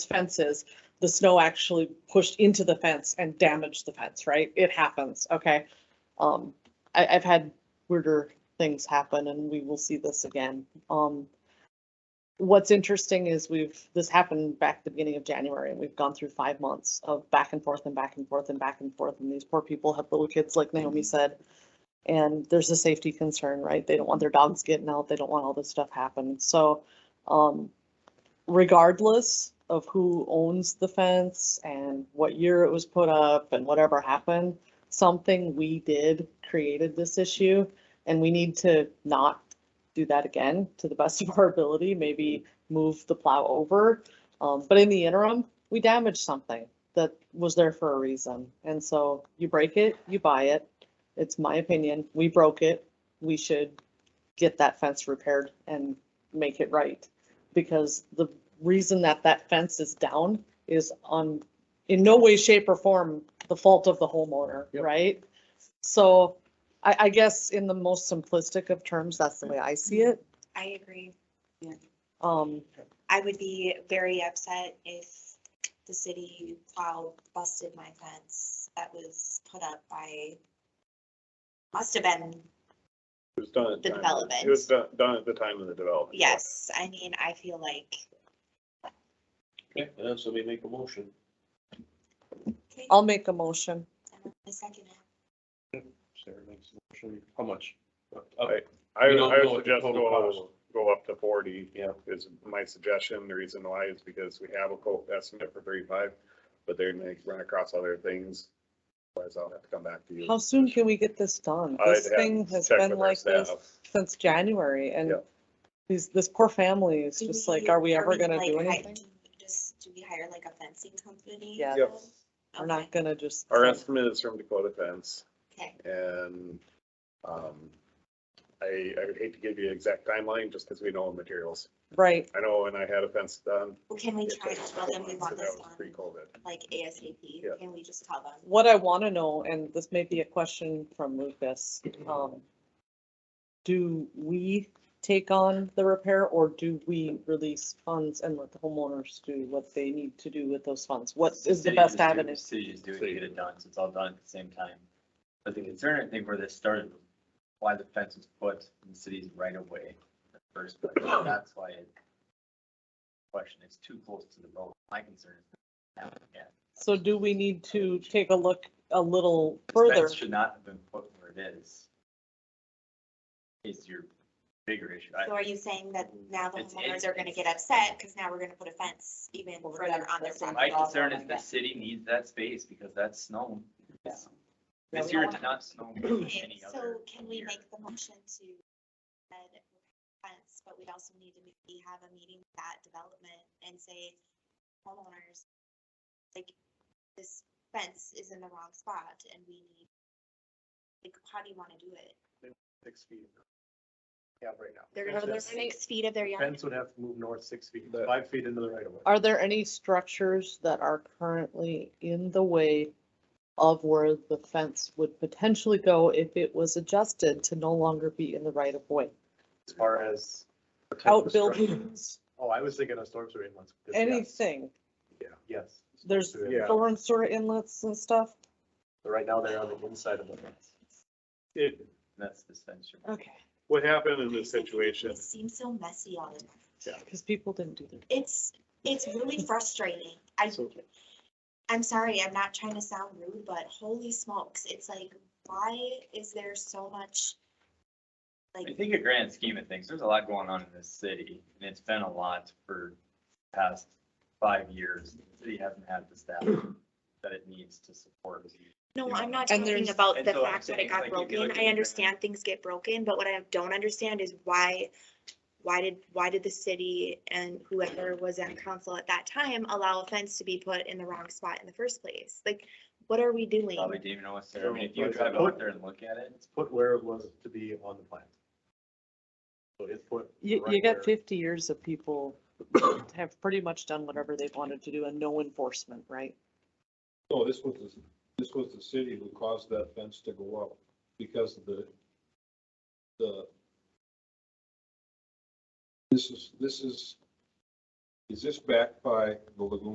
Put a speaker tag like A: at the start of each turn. A: fences, the snow actually pushed into the fence and damaged the fence, right? It happens, okay? Um, I, I've had weirder things happen and we will see this again. Um, what's interesting is we've, this happened back at the beginning of January and we've gone through five months of back and forth and back and forth and back and forth. And these poor people have little kids, like Naomi said. And there's a safety concern, right? They don't want their dogs getting out. They don't want all this stuff happening. So, um, regardless of who owns the fence and what year it was put up and whatever happened, something we did created this issue and we need to not do that again to the best of our ability, maybe move the plow over. Um, but in the interim, we damaged something that was there for a reason. And so you break it, you buy it. It's my opinion. We broke it. We should get that fence repaired and make it right because the reason that that fence is down is on, in no way, shape or form, the fault of the homeowner,
B: Yep.
A: right? So I, I guess in the most simplistic of terms, that's the way I see it.
C: I agree.
A: Um,
C: I would be very upset if the city plow busted my fence that was put up by, must have been,
D: It was done at
C: The
D: time.
C: development.
D: It was done, done at the time of the development.
C: yes, I mean, I feel like.
B: Okay, uh, somebody make a motion.
C: okay,
A: I'll make a motion.
C: A second.
B: Sarah makes a motion. How much?
D: Right. I,
B: We
D: would-
B: don't
D: I
B: know
D: would
B: what the
D: suggest
B: total cost
D: go,
B: was.
D: go up to forty.
B: Yeah.
D: Is my suggestion. The reason why is because we have a quote estimate for thirty-five, but they're gonna run across other things. Otherwise I'll have to come back to you.
A: How soon can we get this done?
D: I'd
A: This
D: have
A: thing
D: to
A: has
D: check
A: been
D: with our
A: like this
D: staff.
A: since January and
D: Yeah.
A: these, this poor family is
C: Do
A: just like, are we ever gonna
C: like,
A: do
C: hi-
A: anything?
C: do we Just, do we hire like a fencing company?
A: Yeah.
D: Yep.
A: We're not
C: Okay,
A: gonna just.
D: Our estimate is from Dakota Fence
C: Okay,
D: and, um, I, I would hate to give you an exact timeline just because we know the materials.
A: Right,
D: I know when I had a fence done.
C: well, can we
D: it
C: try
D: took
C: to
D: a
C: tell
D: couple
C: them we
D: months,
C: want
D: and that
C: this
D: was
C: done,
D: Pre-COVID.
C: like ASAP?
D: Yeah.
C: Can we just tell them?
A: what I want to know, and this may be a question from Lucas, um, do we take on the repair or do we release funds and let the homeowners do what they need to do with those funds? What is the
E: City
A: best
E: just do-
A: avenue?
E: City just do it, to get it done, 'cause it's all done at the same time. But the concern, I think, where this started, was why the fence was put in the city's right of way in the first place, that's why it. Question, it's too close to the road, my concern is. that yeah,
A: So do we need to take a look a little
E: this
A: further?
E: fence Should not have been put where it is. Is your bigger issue. I-
C: So are you saying that now the
E: It's-
C: homeowners
E: it's-
C: are gonna get
E: it's-
C: upset because now we're gonna put a fence even
A: Well,
C: further on their
A: that's- that's
C: property?
E: My
A: all
E: concern
A: around
E: is the
A: that.
E: city needs that space because that's snow.
A: Yeah.
E: This year did not snow much
C: Okay,
E: any other
C: So can we
E: year.
C: make the motion to add fence, but we'd also need to maybe have a meeting with that development and say homeowners, like, this fence is in the wrong spot and we need, like, how do you wanna do it?
F: six feet. Yeah, right now.
C: They're
F: Fence
C: gonna
F: has-
C: lose six feet of their
F: the
C: yard.
F: Fence would have to move north six feet,
D: The-
F: five feet into the right of way.
A: Are there any structures that are currently in the way of where the fence would potentially go if it was adjusted to no longer be in the right of way?
F: As far as. the type of structure.
A: Outbuildings,
F: Oh, I was thinking of storm sewer inlets. Yes,
A: anything?
F: Yes.
A: There's-
F: Storm sewer
D: Yeah.
F: inlets.
A: storm sewer inlets and stuff?
F: But Right now, they're on the inside of the fence.
D: It,
E: That's the fence. you're-
A: Okay.
D: what happened in this situation
C: It seems so messy on it.
A: Because people didn't do their.
C: It's, it's really frustrating. I,
D: So-
C: I'm sorry, I'm not trying to sound rude, but holy smokes, it's like, why is there so much?
E: I
C: Like,
E: think a grand scheme of things, there's a lot going on in this city, and it's been a lot for the past five years. The city hasn't had the staff that it needs to support.
C: no,
E: Yeah.
C: I'm not
A: And
C: talking
A: there's-
C: about
E: And
C: the
E: so I'm
C: fact that
E: saying,
C: it got
E: like, you could
C: broken.
E: look at
C: I
E: the
C: understand things get broken, but what I don't understand is why, why did, why did the city and whoever was on council at that time allow a fence to be put in the wrong spot in the first place? Like, what are we doing?
E: Probably didn't even know what's there. I mean, if
F: So,
E: you
F: like,
E: drive
F: put-
E: out there and look at it,
F: It's put where it was to be on the plan. So it's put.
A: You,
F: right
A: you
F: where-
A: got fifty years of people have pretty much done whatever they've wanted to do and no enforcement, right?
G: No, this was, the- this was the city who caused that fence to go up because of the, the. This is, this is, is this backed by the lagoon?